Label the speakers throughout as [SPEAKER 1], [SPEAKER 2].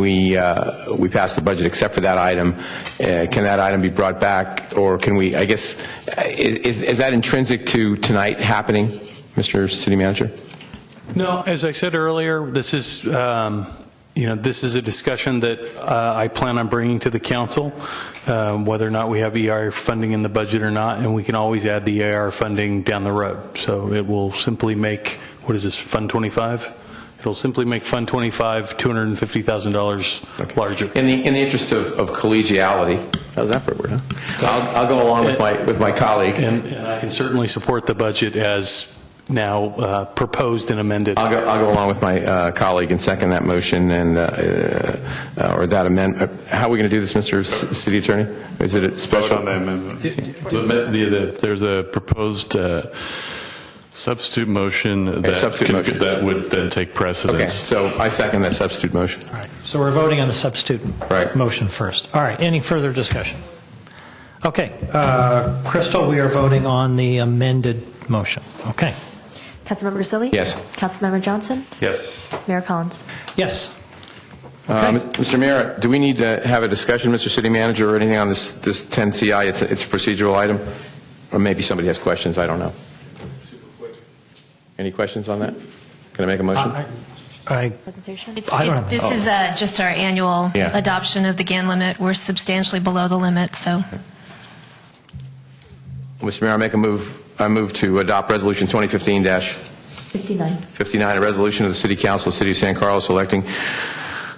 [SPEAKER 1] We, uh, we passed the budget except for that item. Uh, Can that item be brought back, or can we, I guess, uh, is, is that intrinsic to tonight happening, Mr. City Manager?
[SPEAKER 2] No, as I said earlier, this is, um, you know, this is a discussion that uh, I plan on bringing to the council, um, whether or not we have ER funding in the budget or not, and we can always add the ER funding down the road. So it will simply make, what is this, Fund 25? It'll simply make Fund 25 $250,000 larger.
[SPEAKER 1] In the, in the interest of of collegiality, how's that for a word, huh? I'll, I'll go along with my, with my colleague.
[SPEAKER 2] And and I can certainly support the budget as now uh, proposed and amended.
[SPEAKER 1] I'll go, I'll go along with my uh, colleague and second that motion and, uh, uh, or that amendment. How are we going to do this, Mr. C- City Attorney? Is it a
[SPEAKER 3] Vote
[SPEAKER 1] special?
[SPEAKER 3] on the amendment.
[SPEAKER 4] The- the- the- There's a proposed uh, substitute motion that
[SPEAKER 1] substitute
[SPEAKER 4] can-
[SPEAKER 1] motion.
[SPEAKER 4] that would then take
[SPEAKER 1] Okay,
[SPEAKER 4] precedence.
[SPEAKER 1] so I second that substitute motion.
[SPEAKER 5] So we're voting on the substitute
[SPEAKER 1] Right.
[SPEAKER 5] motion first. All right, any further discussion? Okay, uh, Crystal, we are voting on the amended motion. Okay,
[SPEAKER 6] Councilmember Grisilli?
[SPEAKER 1] Yes.
[SPEAKER 6] Councilmember Johnson?
[SPEAKER 3] Yes.
[SPEAKER 6] Mayor Collins?
[SPEAKER 5] yes.
[SPEAKER 1] Uh, Mr. Mayor, do we need to have a discussion, Mr. City Manager, or anything on this, this 10CI? It's, a- it's a procedural item, or maybe somebody has questions, I don't know. Any questions on that? Can I make a motion?
[SPEAKER 5] I- I,
[SPEAKER 6] Presentation?
[SPEAKER 7] It's,
[SPEAKER 5] I don't
[SPEAKER 7] it-
[SPEAKER 5] have-
[SPEAKER 7] this is uh, just our annual
[SPEAKER 1] Yeah.
[SPEAKER 7] adoption of the GAN limit. We're substantially below the limit, so.
[SPEAKER 1] Mr. Mayor, I make a move, I move to adopt Resolution 2015-59,
[SPEAKER 6] 59.
[SPEAKER 1] a resolution of the City Council of the City of San Carlos electing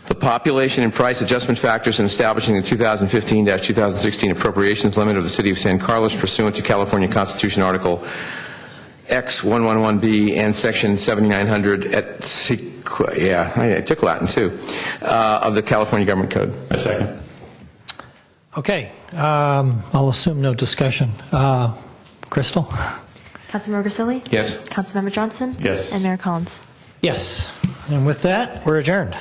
[SPEAKER 1] the population and price adjustment factors and establishing the 2015-2016 appropriations limit of the City of San Carlos pursuant to California Constitution Article X111B and Section 7900 et sequ, yeah, I I took Latin, too, uh, of the California Government Code.
[SPEAKER 3] A second.
[SPEAKER 5] okay, um, I'll assume no discussion. Uh, Crystal?
[SPEAKER 6] Councilmember Grisilli?
[SPEAKER 1] Yes.
[SPEAKER 6] Councilmember Johnson?
[SPEAKER 3] Yes.
[SPEAKER 6] And Mayor Collins?
[SPEAKER 5] Yes, and with that, we're adjourned.